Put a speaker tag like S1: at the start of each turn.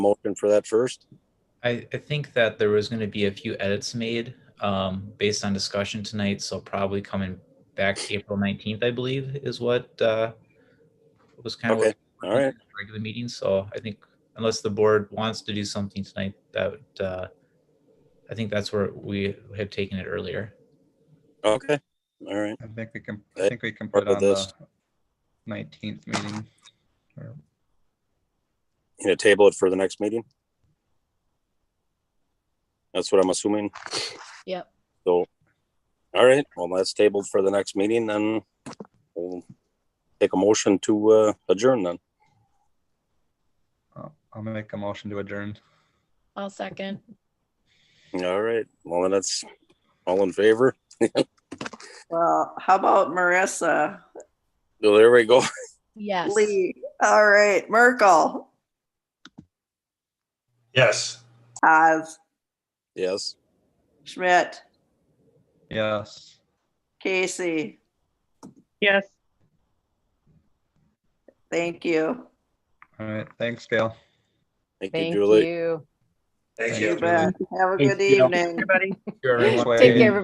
S1: motion for that first?
S2: I, I think that there was going to be a few edits made um, based on discussion tonight. So probably coming back April 19th, I believe, is what uh, was kind
S1: Okay,
S2: of
S1: all right.
S2: regular meeting. So I think unless the board wants to do something tonight, that uh, I think that's where we have taken it earlier.
S1: Okay, all right.
S3: I think we can,
S1: Okay,
S3: I think we can
S1: part
S3: put
S1: of
S3: on the
S1: this.
S3: nineteenth meeting. or-
S1: You gonna table it for the next meeting? That's what I'm assuming.
S4: Yep.
S1: So, all right, well, that's tabled for the next meeting, then we'll take a motion to uh, adjourn then.
S3: I'll I'll make a motion to adjourn.
S4: I'll second.
S1: All right, well, then that's all in favor.
S5: Well, how about Marissa?
S1: So there we go.
S4: Yes.
S5: Lee, all right, Merkel,
S6: Yes.
S5: Oz,
S1: Yes,
S5: Schmidt,
S3: Yes.
S5: Casey,
S7: Yes.
S5: thank you.
S3: All right. Thanks, Gail.
S1: thank you,
S8: Thank
S1: Julie.
S8: you.
S6: Thank
S3: you.
S6: you.
S5: You bet. Have a good
S7: Thank you.
S5: evening.
S7: Everybody.
S3: Thanks,
S8: Take
S3: Wade.
S8: care,